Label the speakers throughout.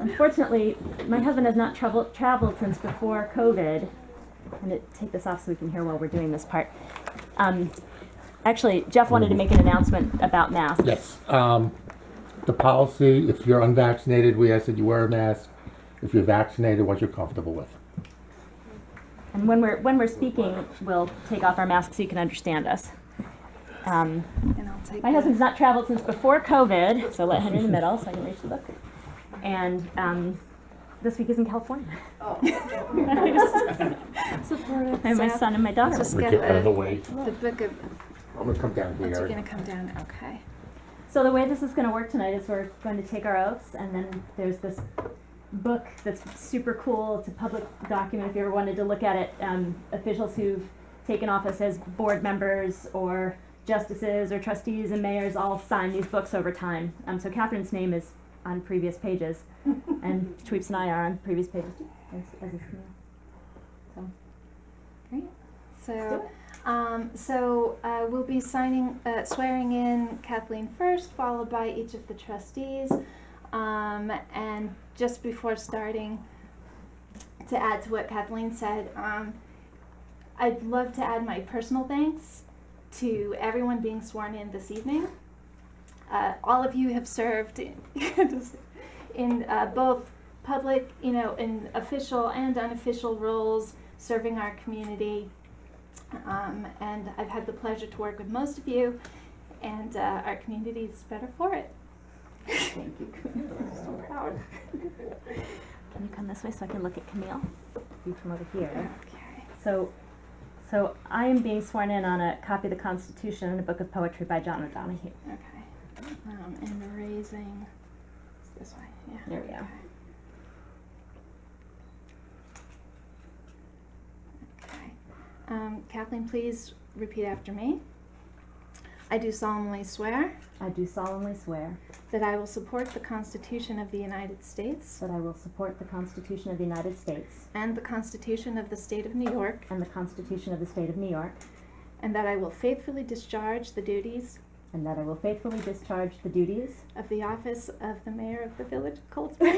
Speaker 1: unfortunately, my husband has not traveled traveled since before COVID. I'm gonna take this off so we can hear while we're doing this part. Um, actually, Jeff wanted to make an announcement about masks.
Speaker 2: Yes, um, the policy, if you're unvaccinated, we ask that you wear a mask. If you're vaccinated, what you're comfortable with.
Speaker 1: And when we're when we're speaking, we'll take off our masks so you can understand us. Um,
Speaker 3: And I'll take
Speaker 1: My husband's not traveled since before COVID, so let him in the middle so I can reach the book. And um, this week is in California.
Speaker 3: supportive.
Speaker 1: I have my son and my daughter.
Speaker 3: Just
Speaker 2: We
Speaker 3: get
Speaker 2: get out of the
Speaker 3: the,
Speaker 2: way.
Speaker 3: the book of,
Speaker 2: I'm gonna come down
Speaker 3: it's
Speaker 2: here.
Speaker 3: gonna come down, okay.
Speaker 1: So the way this is going to work tonight is we're going to take our oaths, and then there's this book that's super cool. It's a public document if you ever wanted to look at it. Um, officials who've taken office as board members or justices or trustees and mayors all sign these books over time. Um, so Catherine's name is on previous pages, and Tweeps and I are on previous pages. As, as is me. Let's do
Speaker 3: So, um, so, uh, we'll be signing, uh, swearing in Kathleen first, followed by each of the trustees. Um, and just before starting, to add to what Kathleen said, um, I'd love to add my personal thanks to everyone being sworn in this evening. Uh, all of you have served in, in uh, both public, you know, in official and unofficial roles, serving our community. Um, and I've had the pleasure to work with most of you, and uh, our community is better for it. Thank you. I'm so proud.
Speaker 1: Can you come this way so I can look at Camille? You from over here.
Speaker 3: Okay.
Speaker 1: So, so I am being sworn in on a copy of the Constitution and a book of poetry by John O'Donohue.
Speaker 3: Okay. Um, and the raising. It's this way. Yeah.
Speaker 1: There we go.
Speaker 3: Okay. Um, Kathleen, please repeat after me. I do solemnly swear
Speaker 1: I do solemnly swear
Speaker 3: that I will support the Constitution of the United States
Speaker 1: that I will support the Constitution of the United States
Speaker 3: and the Constitution of the State of New York,
Speaker 1: and the Constitution of the State of New York,
Speaker 3: and that I will faithfully discharge the duties
Speaker 1: and that I will faithfully discharge the duties
Speaker 3: of the office of the mayor of the village of Cold Spring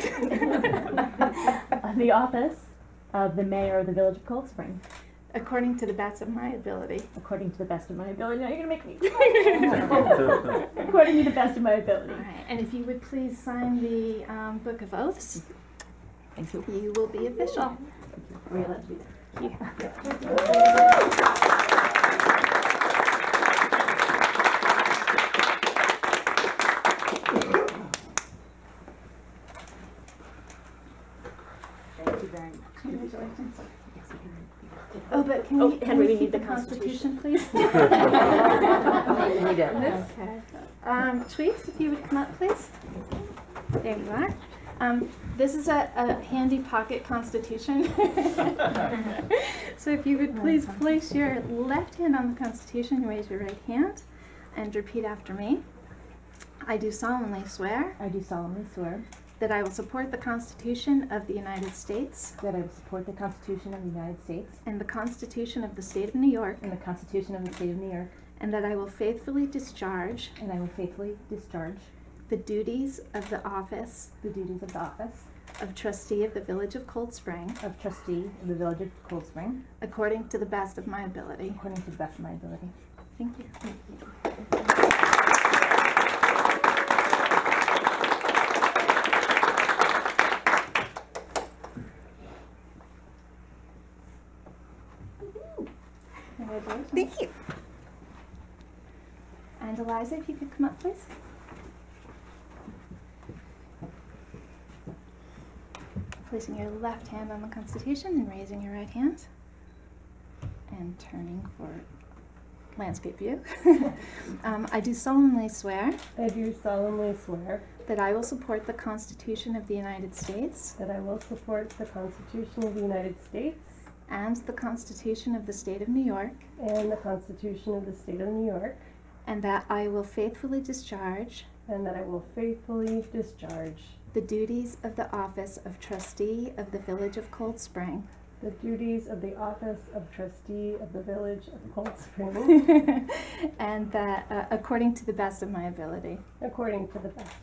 Speaker 1: of the office of the mayor of the village of Cold Spring,
Speaker 3: according to the best of my ability.
Speaker 1: according to the best of my ability. Now you're gonna make me. according to the best of my ability.
Speaker 3: All right, and if you would please sign the um, Book of Oaths,
Speaker 1: Thank you.
Speaker 3: you will be official.
Speaker 1: Were you allowed to do that?
Speaker 4: Thank you very much.
Speaker 3: Oh, but can
Speaker 1: Oh,
Speaker 3: we, can
Speaker 1: Henry,
Speaker 3: we
Speaker 1: we
Speaker 3: keep
Speaker 1: need
Speaker 3: the
Speaker 1: the
Speaker 3: Constitution, please?
Speaker 4: We do.
Speaker 3: Okay. Um, Tweets, if you would come up, please. There you are. Um, This is a a handy pocket Constitution. So if you would please place your left hand on the Constitution, raise your right hand, and repeat after me. I do solemnly swear
Speaker 1: I do solemnly swear
Speaker 3: that I will support the Constitution of the United States
Speaker 1: that I will support the Constitution of the United States
Speaker 3: and the Constitution of the State of New York,
Speaker 1: and the Constitution of the State of New York,
Speaker 3: and that I will faithfully discharge
Speaker 1: and I will faithfully discharge
Speaker 3: the duties of the office
Speaker 1: the duties of the office
Speaker 3: of trustee of the Village of Cold Spring
Speaker 1: of trustee of the Village of Cold Spring
Speaker 3: according to the best of my ability.
Speaker 1: according to the best of my ability.
Speaker 3: Thank you. Congratulations.
Speaker 4: Thank you.
Speaker 3: And Eliza, if you could come up, please. Placing your left hand on the Constitution and raising your right hand. And turning for landscape view. um, I do solemnly swear
Speaker 5: I do solemnly swear
Speaker 3: that I will support the Constitution of the United States
Speaker 5: that I will support the Constitution of the United States
Speaker 3: and the Constitution of the State of New York,
Speaker 5: and the Constitution of the State of New York,
Speaker 3: and that I will faithfully discharge
Speaker 5: and that I will faithfully discharge
Speaker 3: the duties of the office of trustee of the Village of Cold Spring
Speaker 5: the duties of the office of trustee of the Village of Cold Spring
Speaker 3: and that uh, according to the best of my ability.
Speaker 5: according to the best of